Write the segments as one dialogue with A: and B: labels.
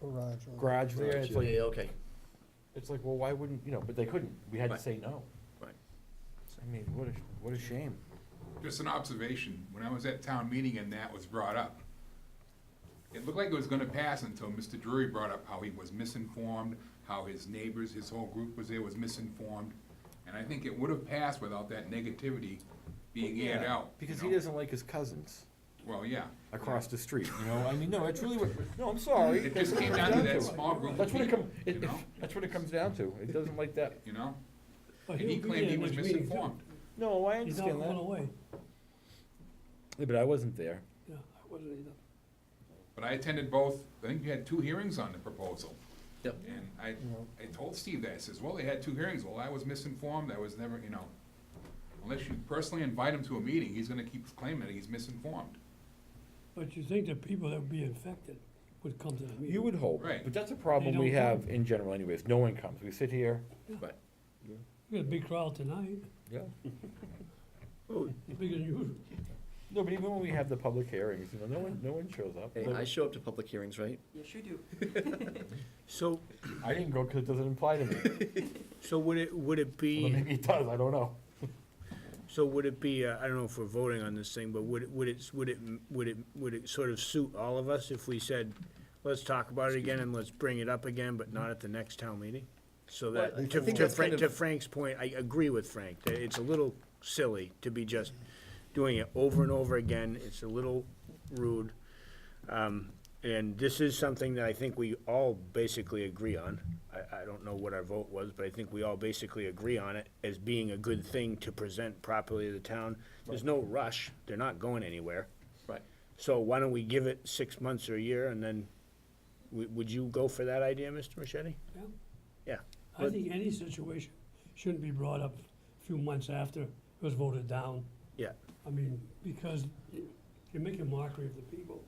A: garage. or-
B: garage there, it's
C: Yeah,
B: like,
C: yeah, okay,
B: it's like, well, why wouldn't, you know, but they couldn't, we had to
C: Right.
B: say no.
C: Right.
B: I mean, what a, what a shame.
D: Just an observation, when I was at town meeting and that was brought up, it looked like it was gonna pass until Mr. Drury brought up how he was misinformed, how his neighbors, his whole group was there was misinformed. And I think it would have passed without that negativity being aired
B: Yeah,
D: out. you
B: Because he
D: know?
B: doesn't like his cousins
D: Well, yeah.
B: across the street, you know, I mean, no, it's really, what no, I'm sorry.
D: It
B: that's
D: just
B: what
D: came
B: it
D: down to
B: comes
D: that small group of
B: That's what it
D: people,
B: come, it,
D: you
B: it-
D: know?
B: that's what it comes down to, it doesn't like that,
D: You know?
E: But
D: And he
E: he'll be
D: claimed
E: there
D: he was
E: next meeting, too.
D: misinformed.
B: no, I
E: He's not
B: understand
E: going
B: that.
E: away.
B: Yeah, but I wasn't there.
E: Yeah, I wasn't either.
D: But I attended both, I think you had two hearings on the proposal.
C: Yep.
D: And I,
A: Yeah.
D: I told Steve that, I says, well, they had two hearings, well, I was misinformed, I was never, you know, unless you personally invite him to a meeting, he's gonna keep claiming that he's misinformed.
E: But you think the people that would be infected would come to the meeting?
B: You would hope,
D: Right.
B: but that's a problem
E: They
B: we
E: don't come.
B: have in general anyways, no one comes, we sit here,
C: but,
E: We had a big crowd tonight,
B: yeah.
E: bigger than usual.
B: No, but even when we have the public hearings, you know, no one, no one shows up.
C: hey, I show up to public hearings, right?
F: Yes, you do.
G: So,
B: I didn't go because it doesn't imply to me.
G: so would it, would it
B: Well,
G: be,
B: maybe it does, I don't know.
G: so would it be, uh, I don't know if we're voting on this thing, but would it, would it, would it, would it, would it sort of suit all of us if we said, let's talk about it again and let's bring it up again, but not at the next town meeting? So
C: Well, I
G: that, to
C: think
G: to
C: that's kind
G: Frank, to
C: of-
G: Frank's point, I agree with Frank, that it's a little silly to be just doing it over and over again, it's a little rude. Um, And this is something that I think we all basically agree on. I, I don't know what our vote was, but I think we all basically agree on it as being a good thing to present properly to the town. There's no rush, they're not going anywhere.
C: Right.
G: So why don't we give it six months or a year and then, would, would you go for that idea, Mr. Machete?
E: Yeah.
G: Yeah,
E: I
G: But-
E: think any situation shouldn't be brought up a few months after it was voted down.
G: yeah,
E: I mean, because you're making mockery of the people.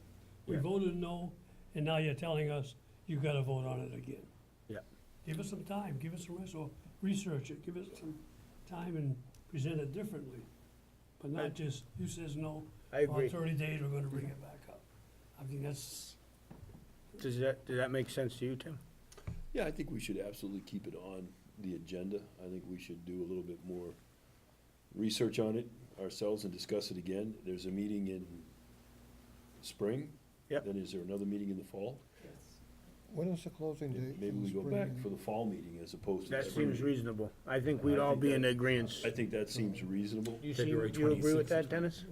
E: We
G: Yeah.
E: voted no, and now you're telling us you gotta vote on it again.
G: yeah.
E: Give us some time, give us some rest, or research it, give us some time and present it differently. But
G: I-
E: not just, you says no,
G: I agree.
E: on thirty days, we're gonna bring it back up. I think that's,
G: Does that, does that make sense to you, Tim?
C: Yeah, I think we should absolutely keep it on the agenda. I think we should do a little bit more research on it ourselves and discuss it again. There's a meeting in spring.
G: Yep.
C: Then is there another meeting in the fall?
A: When is the closing date? for
C: Maybe we
A: the
C: go
A: spring
C: back
A: meeting?
C: for the fall meeting as opposed to. the
G: That
C: spring
G: seems
C: meeting.
G: reasonable. I think
C: I
G: we'd all
C: think
G: be in
C: that-
G: agreement.
C: I think that seems reasonable.
G: You seem,
B: February
G: you agree with
B: 26th.
G: that, Dennis?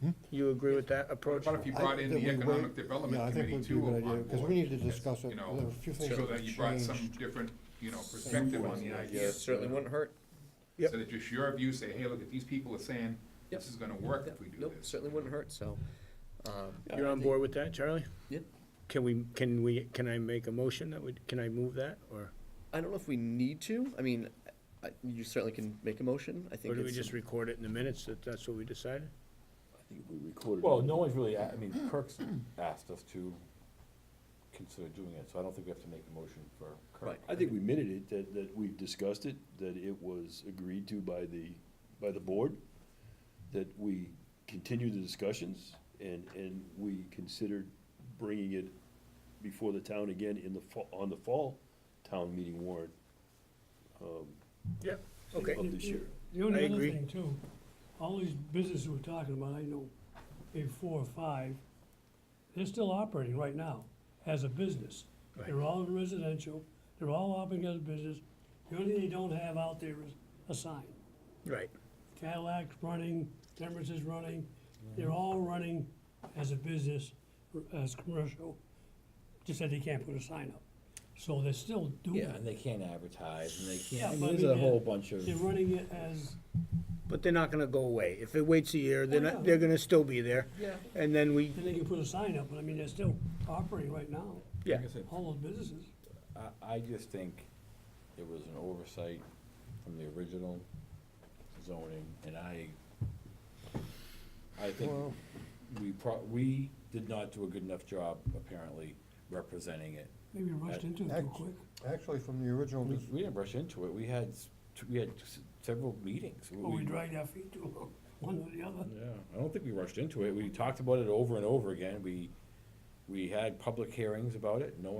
C: Hmm?
G: You agree with that approach?
D: But if you
A: I
D: brought in
A: think that
D: the
A: we
D: Economic
A: wait-
D: Development
A: yeah, I think
D: Committee
A: would be
D: too
A: a good
D: on
A: idea, Because
D: board,
A: we need to discuss it,
D: you know,
A: there are a few things
D: So
A: that
D: that you
A: have
D: brought some
A: changed.
D: different, you know, perspective on the idea.
C: Certainly wouldn't hurt.
G: Yep.
D: So that just your view, say, hey, look, at these people are saying,
C: Yep.
D: this is gonna work if we do
C: Nope,
D: this.
C: certainly wouldn't hurt, so. um,
G: You're on board with that, Charlie?
C: Yep.
G: Can we, can we, can I make a motion that would, can I move that, or,
C: I don't know if we need to. I mean, I- you certainly can make a motion. I think
G: or do we
C: it's-
G: just record it in the minutes that that's what we decided?
C: I think if we recorded.
B: Well,
C: it-
B: no one's really, a- I mean, Kirk's asked us to consider doing it, so I don't think we have to make a motion for Kirk.
C: Right, I think we minted it, that, that we've discussed it, that it was agreed to by the, by the board, that we continue the discussions, and, and we considered bringing it before the town again in the fall, on the fall town meeting warrant
G: Yep,
C: of this year.
E: the only
G: I
E: other
G: agree.
E: thing too, all these businesses we're talking about, I know maybe four or five, they're still operating right now as a business. They're all in residential, they're all operating as a business. The only thing they don't have out there is a sign.
G: Right,
E: Cadillac's running, Demer's is running, they're all running as a business, r- as commercial, just that they can't put a sign up. So they're still doing
B: Yeah,
E: it.
B: and they can't advertise, and they
E: Yeah,
B: can't,
E: but
B: I
E: I
B: mean, there's
E: mean,
B: a
E: they're-
B: whole bunch of,
E: They're running it as,
G: but they're not gonna go away. If it waits a year, they're
E: Oh,
G: not,
E: yeah.
G: they're gonna still be there.
E: Yeah.
G: And then we,
E: and they can put a sign up, but I mean, they're still operating right now,
G: yeah,
B: like I said,
E: all those businesses.
B: I, I just think it was an oversight from the original zoning, and I, I think
A: Well-
B: we pro, we did not do a good enough job, apparently, representing it.
E: Maybe rushed into it too
A: Act-
E: quick.
A: Actually, from the original,
B: We,
A: dis-
B: we didn't rush into it, we had, s- t- we had s- several meetings.
E: Or we dragged our feet too long, one or the other.
B: Yeah, I don't think we rushed into it, we talked about it over and over again, we We had public hearings about it, no